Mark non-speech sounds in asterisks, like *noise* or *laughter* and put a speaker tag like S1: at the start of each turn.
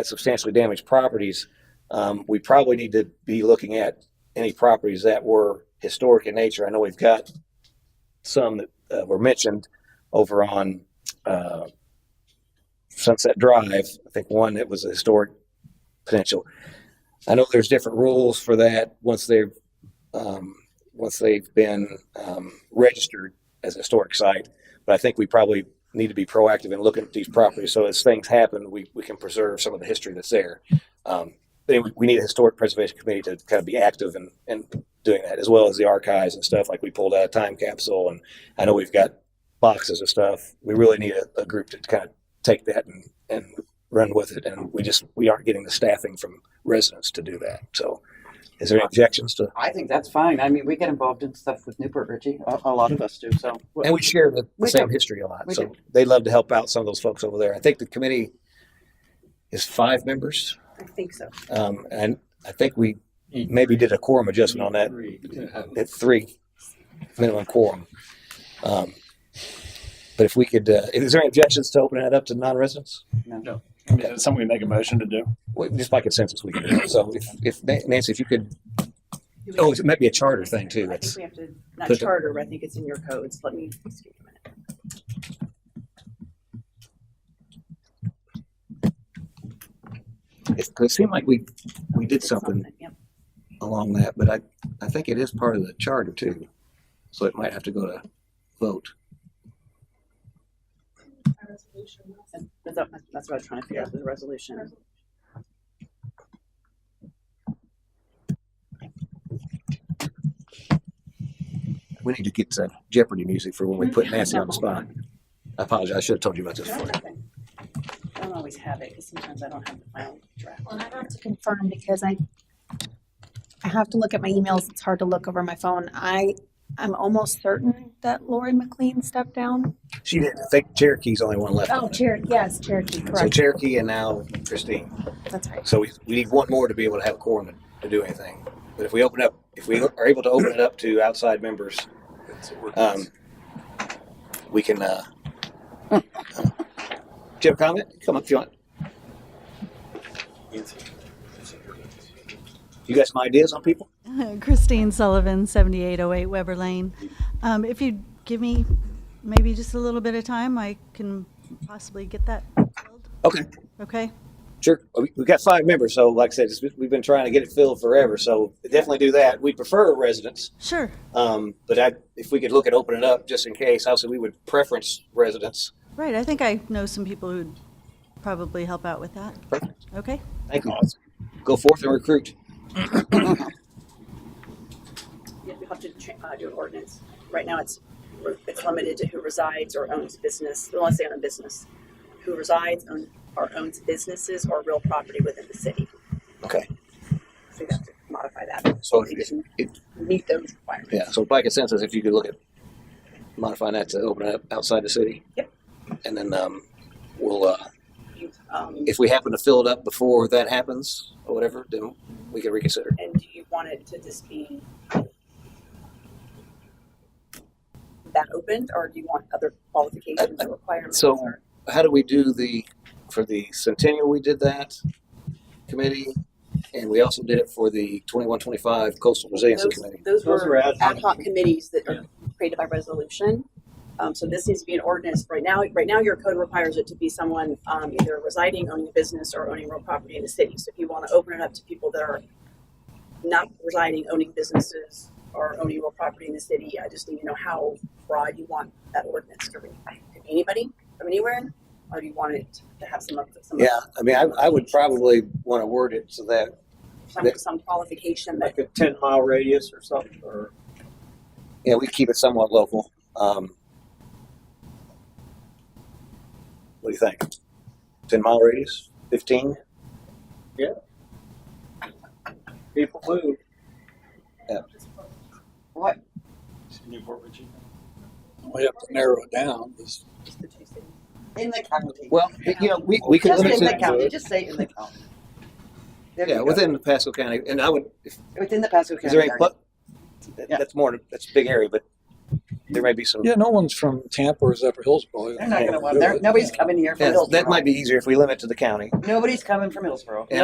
S1: at substantially damaged properties, um, we probably need to be looking at any properties that were historic in nature. I know we've got some that uh, were mentioned over on uh, Sunset Drive. I think one that was a historic potential. I know there's different rules for that once they're um, once they've been um, registered as a historic site. But I think we probably need to be proactive in looking at these properties. So as things happen, we, we can preserve some of the history that's there. Um, then we- we need a historic preservation committee to kind of be active in, in doing that, as well as the archives and stuff. Like we pulled out a time capsule, and I know we've got boxes of stuff. We really need a, a group to kind of take that and, and run with it. And we just we aren't getting the staffing from residents to do that. So is there any objections to?
S2: I think that's fine. I mean, we get involved in stuff with Newport Richie. A, a lot of us do. So
S1: And we share the, the
S2: We
S1: same
S2: do.
S1: history a lot.
S2: We
S1: so
S2: do.
S1: they love to help out some of those folks over there. I think the committee is five members.
S3: I think so.
S1: Um, and I think we maybe did a quorum adjustment on that at three minimum quorum. Um, but if we could, uh, is there any objections to opening it up to non-residents?
S4: I mean, is it something we make a motion to do?
S1: Well, just by consensus, we can. do it. So if, if Na- Nancy, if you could, oh, it might be a charter thing too.
S3: I think
S1: That's
S3: we have to, not
S1: Put-
S3: charter, but I think it's in your codes. Let me. just give you a minute.
S1: it, it seemed like we we did
S3: It's
S1: something
S3: Yep.
S1: along that, but I I think it is part of the charter too. So it might have to go to vote.
S3: That's what- that's what I was trying to figure out, the resolution.
S1: We need to get some Jeopardy music for when we put Nancy on the spot. I apologize. I should have told you about this before.
S3: I don't always have it, because sometimes I don't have the final draft.
S5: Well, and I have to confirm because I, I have to look at my emails. It's hard to look over my phone. I, I'm almost certain that Lori McLean stepped down.
S1: She did. I think Cherokee's only one left.
S5: Oh, Cherokee, yes, Cherokee,
S1: So
S5: correct.
S1: Cherokee and now Christine.
S5: That's right.
S1: So we, we need one more to be able to have a quorum to, to do anything. But if we open up, if we are able to open it up to outside members, um, we can, uh, *laughs* do you have a comment? Come up if you want. You got some ideas on people?
S6: *laughs* Christine Sullivan, 7808 Weber Lane. Um, If you give me maybe just a little bit of time, I can possibly get that filled,
S1: Okay.
S6: okay?
S1: Sure. We- We've got five members, so like I said, it's- we've been trying to get it filled forever, so definitely do that. We prefer residents,
S6: Sure,
S1: um, but I, if we could look at opening it up just in case, obviously we would preference residents.
S6: right, I think I know some people who'd probably help out with that. Okay,
S1: Thank you. Go forth and recruit.
S3: Yeah, we have to cha- uh, do an ordinance. Right now, it's, it's limited to who resides or owns business, unless they own a business. Who resides own- or owns businesses or real property within the city.
S1: Okay.
S3: So we have to modify that.
S1: So
S3: They
S1: if-
S3: didn't
S1: if-
S3: Meet those requirements.
S1: Yeah, so by consensus, if you could look at modifying that to open it up outside the city.
S3: Yep.
S1: And then, um, we'll, uh,
S3: You, um,
S1: if we happen to fill it up before that happens or whatever, then we can reconsider.
S3: And do you want it to just be that opened, or do you want other qualifications or requirements?
S1: So-
S3: or-
S1: how do we do the, for the centennial, we did that committee, and we also did it for the twenty-one, twenty-five coastal resiliency
S3: Those
S1: committee.
S3: those
S4: Those
S3: were
S4: were ad
S3: ad
S4: hoc.
S3: hoc committees that are created by resolution. Um, so this needs to be an ordinance. Right now, right now, your code requires it to be someone, um, either residing, owning a business, or owning real property in the city. So if you want to open it up to people that are not residing, owning businesses, or owning real property in the city, I just need to know how broad you want that ordinance to read. Could be Anybody from anywhere, or do you want it to have some, of- some,
S1: Yeah, I mean, I, I would probably want to word it so that,
S3: some, some qualification that
S4: Like a ten mile radius or something, or?
S1: yeah, we keep it somewhat local. Um, what do you think? Ten mile radius, fifteen?
S4: People move.
S2: what?
S4: Newport, Virginia.
S7: we have to narrow it down. It's-
S3: just the two cities.
S2: In the county.
S1: Well, you know, we, we could
S2: just
S1: limit
S2: in the
S1: it,
S2: county. Just say in the county. There you
S1: yeah,
S2: go.
S1: within Pasco County, and I would, if
S2: within the Pasco County.
S1: Is there any,
S2: area.
S1: pla-
S2: Yeah.
S1: that's more, that's a big area, but There may be some,
S7: Yeah, no one's from Tampa or Zephyr Hills probably.
S2: They're not going to want. They're, nobody's coming here from
S1: Yeah,
S2: Hillsborough.
S1: that might be easier if we limit to the county.
S2: Nobody's coming from Hillsborough.